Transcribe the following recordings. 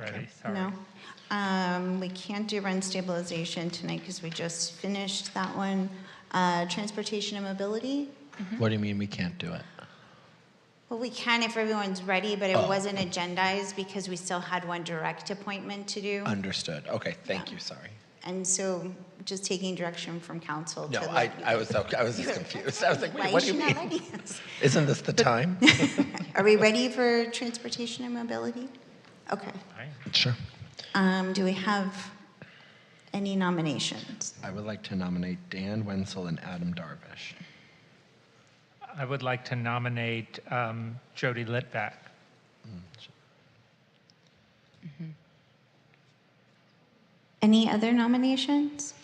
already, sorry. No. Um, We can't do rent stabilization tonight because we just finished that one. Uh, Transportation and mobility, What do you mean we can't do it? well, we can if everyone's ready, but it Oh. wasn't agendized because we still had one direct appointment to do. Understood. Okay, thank you, sorry. And so just taking direction from council to No, let I, you- I was, I was just confused. I was like, wait, what do you Why is she not mean? ready? Isn't this the time? Are we ready for transportation and mobility? Okay. Fine. Sure. Um, Do we have any nominations? I would like to nominate Dan Wenzel and Adam Darvish. I would like to nominate um, Jody Litvak. Any other nominations?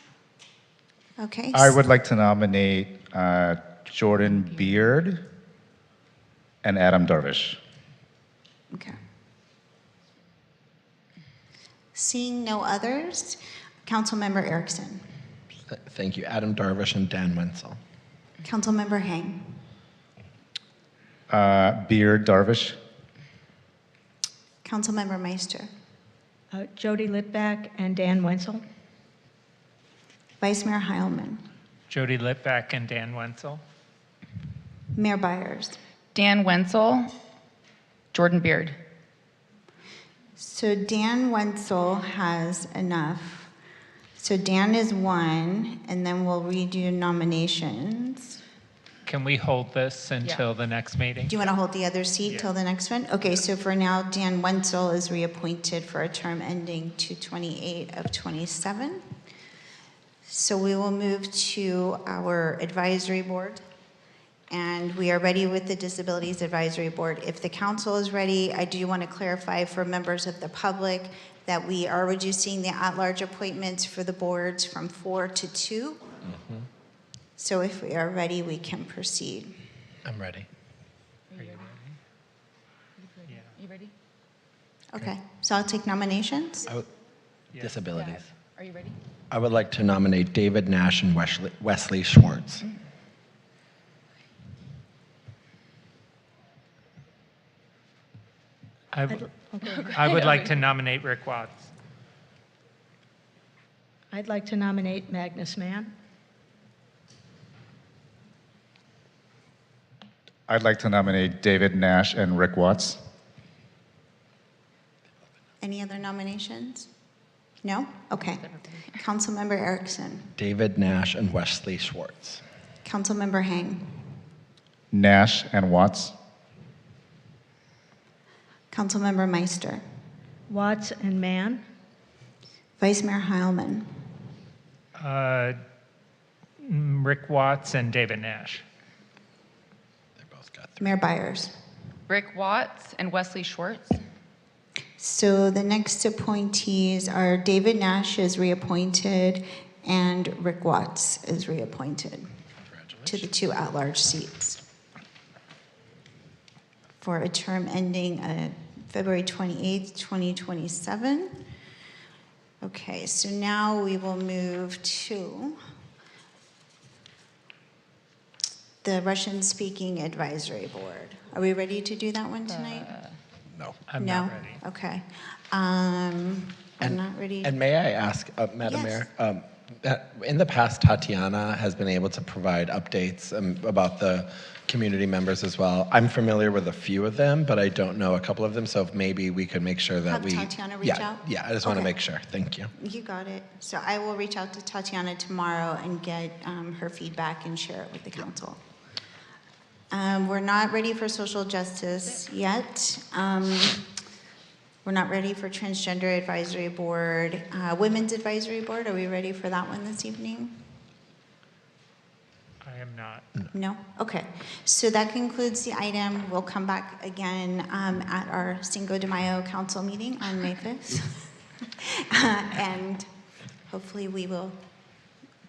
Okay. I would like to nominate uh, Jordan Beard and Adam Darvish. Okay. Seeing no others, Councilmember Erickson, Th- Thank you, Adam Darvish and Dan Wenzel. Councilmember Hang, Uh, Beard, Darvish, Councilmember Meister, Uh, Jody Litback and Dan Wenzel. Vice Mayor Heilman, Jody Litvak and Dan Wenzel. Mayor Byers. Dan Wenzel, Jordan Beard. So Dan Wenzel has enough. So Dan is one, and then we'll redo nominations. Can we hold this until the next meeting? Do you want to hold the other seat Yeah. till the next one? Okay, so for now, Dan Wenzel is reappointed for a term ending 228 of 27. So we will move to our advisory board. And we are ready with the Disabilities Advisory Board. If the council is ready, I do want to clarify for members of the public that we are reducing the at-large appointments for the boards from four to two. So if we are ready, we can proceed. I'm ready. Yeah. You ready? Okay, so I'll take nominations. I would- Disabilities. Are you ready? I would like to nominate David Nash and Wesley Wesley Schwartz. I w- I would like to nominate Rick Watts. I'd like to nominate Magnus Mann. I'd like to nominate David Nash and Rick Watts. Any other nominations? No? Okay. Councilmember Erickson, David Nash and Wesley Schwartz. Councilmember Hang, Nash and Watts. Councilmember Meister, Watts and Mann. Vice Mayor Heilman, Uh, mm, Rick Watts and David Nash. They both got three. Mayor Byers. Rick Watts and Wesley Schwartz. So the next appointees are David Nash is reappointed and Rick Watts is reappointed to the two at-large seats for a term ending uh, February 28th, 2027. Okay, so now we will move to the Russian-speaking advisory board. Are we ready to do that one tonight? No. I'm no? not ready. Okay. Um, I'm And- not ready. And may I ask, uh, Madam Yes. Mayor, um, that- in the past, Tatiana has been able to provide updates um, about the community members as well. I'm familiar with a few of them, but I don't know a couple of them, so if maybe we could make sure that Have we. Tatiana reach Yeah, out? Yeah, I just want to Okay. make sure. Thank you. You got it. So I will reach out to Tatiana tomorrow and get um, her feedback and share it with the council. Um, We're not ready for social justice yet. Um, We're not ready for transgender advisory board. Uh, Women's advisory board, are we ready for that one this evening? I am not. No? Okay. So that concludes the item. We'll come back again um, at our Cinco de Mayo council meeting on May 5th. Uh, And hopefully, we will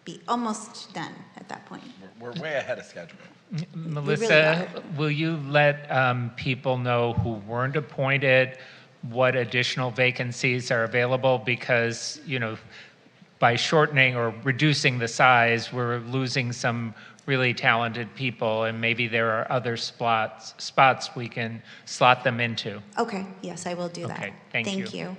be almost done at that point. We're way ahead of schedule. Melissa, got will you let um, people know who weren't appointed, what additional vacancies are available? Because, you know, by shortening or reducing the size, we're losing some really talented people, and maybe there are other spots, spots we can slot them into. Okay, yes, I will do that. Okay, thank you. Thank you.